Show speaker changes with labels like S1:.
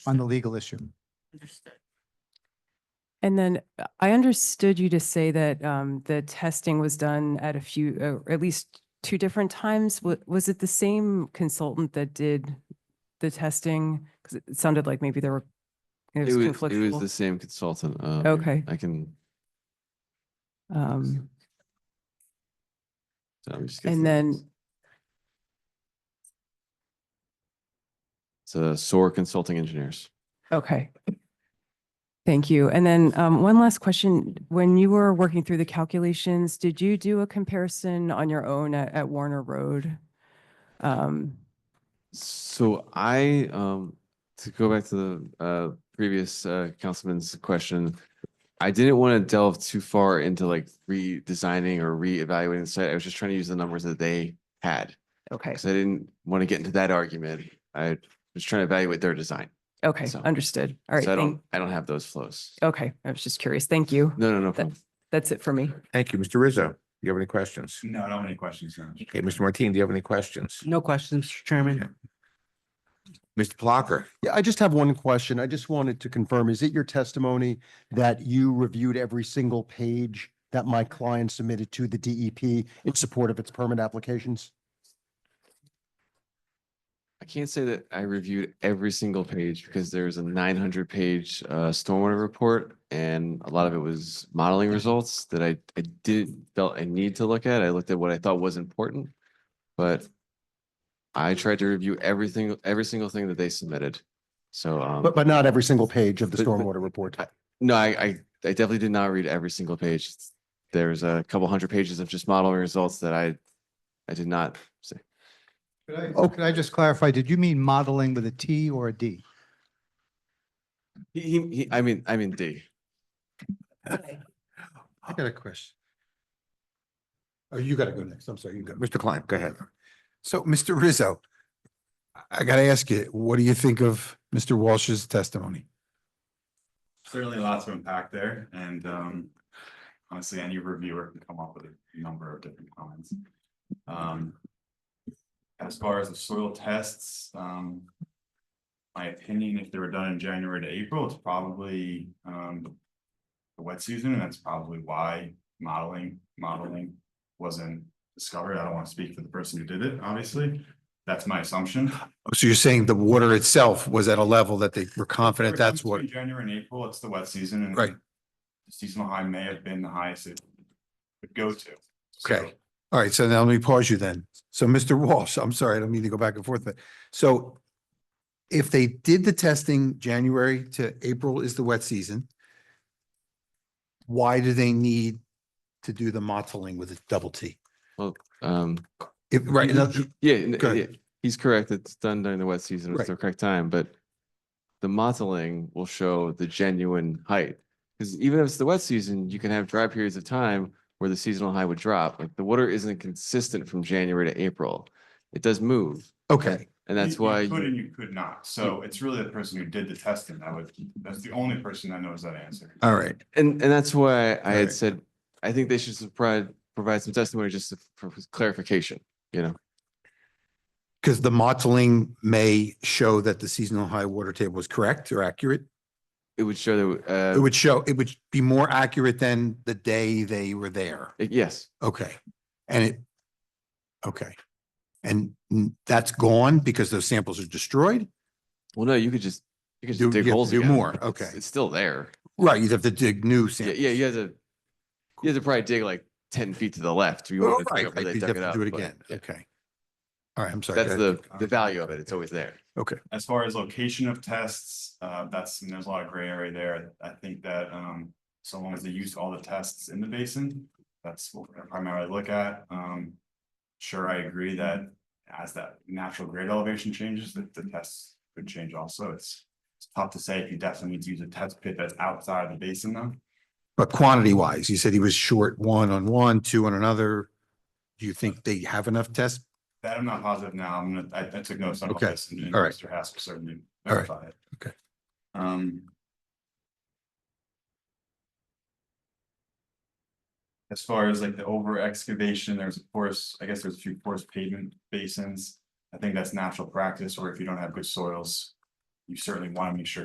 S1: on the legal issue.
S2: Understood.
S3: And then uh, I understood you to say that um, the testing was done at a few, uh, or at least two different times. Wa- Was it the same consultant that did the testing? Because it sounded like maybe there were, it was
S4: It was, it was the
S3: conflictual.
S4: same consultant. um,
S3: Okay.
S4: I can,
S3: Um,
S4: so I'm just. get
S3: And
S4: the
S3: then,
S4: names. It's a SOAR Consulting Engineers.
S3: okay. Thank you. And then um, one last question. When you were working through the calculations, did you do a comparison on your own at at Warner Road? Um,
S4: So I, um, to go back to the, uh, previous, uh, councilman's question. I didn't want to delve too far into like redesigning or reevaluating the site. I was just trying to use the numbers that they had.
S3: Okay,
S4: Cause I didn't want to get into that argument. I was trying to evaluate their design.
S3: okay,
S4: so-
S3: understood. All right.
S4: So I
S3: thank- Oh.
S4: don't, I don't have those flows.
S3: Okay, I was just curious. Thank you.
S4: No, no, no.
S3: That-
S4: problem.
S3: That's it for me.
S5: Thank you, Mr. Rizzo. Do you have any questions?
S6: No, I don't have any questions. no.
S5: Okay, Mr. Martine, do you have any questions?
S2: No questions, Mr. Chairman.
S5: Mr. Plucker,
S7: Yeah, I just have one question. I just wanted to confirm, is it your testimony that you reviewed every single page that my client submitted to the DEP in support of its permit applications?
S4: I can't say that I reviewed every single page because there's a nine hundred page uh stormwater report and a lot of it was modeling results that I I didn't felt I need to look at. I looked at what I thought was important. But I tried to review everything, every single thing that they submitted. So um,
S7: But, but not every single page of the
S4: But- but-
S7: stormwater report?
S4: no, I I I definitely did not read every single page. There's a couple hundred pages of just modeling results that I I did not see.
S1: Could I,
S7: Oh.
S1: could I just clarify, did you mean modeling with a T or a D?
S4: He he, he- I mean, I mean D.
S1: I got a question.
S6: Oh, you gotta go next. I'm sorry, you go.
S5: Mr. Klein, go ahead.
S6: So, Mr. Rizzo, I- I gotta ask you, what do you think of Mr. Walsh's testimony?
S8: Certainly lots of impact there and um honestly, any reviewer can come up with a number of different comments. Um. As far as the soil tests, um. My opinion, if they were done in January to April, it's probably um. The wet season, and that's probably why modeling, modeling wasn't discovered. I don't want to speak for the person who did it, obviously. That's my assumption.
S6: Oh, So you're saying the water itself was at a level that they were confident that's what,
S8: Between January and April, it's the wet season and.
S6: Right.
S8: the Seasonal high may have been the highest it would go to. So,
S6: okay. All right, so now let me pause you then. So Mr. Walsh, I'm sorry, I don't mean to go back and forth, but so if they did the testing January to April is the wet season, why do they need to do the mottling with a double T?
S4: Um,
S6: If, right,
S4: He-
S6: in
S4: he-
S6: other-
S4: Yeah, n-
S6: Go
S4: yeah,
S6: ahead.
S4: he's correct. It's done during the wet season. It's
S6: Right.
S4: the correct time, but the mottling will show the genuine height. Because even if it's the wet season, you can have dry periods of time where the seasonal high would drop. Like the water isn't consistent from January to April. It does move,
S6: okay,
S4: and
S8: you-
S4: that's
S8: you
S4: why.
S8: Could
S4: you-
S8: and you could not. So it's really the person who did the testing that would, that's the only person that knows that answer.
S6: all right.
S4: And, and that's why I had
S6: Alright.
S4: said, I think they should provide, provide some testimony just to- for clarification, you know?
S6: Because the modeling may show that the seasonal high water table was correct or accurate.
S4: It would show that,
S6: It
S4: uh,
S6: would show, it would be more accurate than the day they were there.
S4: yes,
S6: Okay. And it, okay. And n- that's gone because those samples are destroyed?
S4: Well, no, you could just, you could
S6: Do-
S4: just dig
S6: you have to
S4: holes
S6: do
S4: again.
S6: more,
S4: It's-
S6: okay.
S4: It's still there.
S6: Right, you'd have to dig new
S4: Yeah,
S6: samples.
S4: yeah, you had to, you had to probably dig like ten feet to the left. You
S6: Oh,
S4: wouldn't have
S6: Right,
S4: dug it
S6: right,
S4: where they
S6: you'd
S4: dug
S6: have
S4: it
S6: to
S4: up,
S6: do it
S4: but
S6: again,
S4: yeah.
S6: okay. All right, I'm sorry.
S4: That's
S6: go ahead.
S4: the, the value of it. It's always there.
S8: As far as location of tests, uh, that's, and there's a lot of gray area there. I think that, um, so long as they use all the tests in the basin, that's what I primarily look at. Um, sure, I agree that as that natural grade elevation changes, that the tests could change also. It's it's tough to say if you definitely need to use a test pit that's outside the basin though.
S6: But quantity wise, you said he was short one on one, two on another. Do you think they have enough tests?
S8: That I'm not positive now. I'm gonna, I, I took notes on all
S6: Okay,
S8: this and and
S6: all right.
S8: Mr. Haskell certainly
S6: All right,
S8: verified it.
S6: okay.
S8: Um. As far as like the over excavation, there's of course, I guess there's a few porous pavement basins. I think that's natural practice, or if you don't have good soils, you certainly want to make sure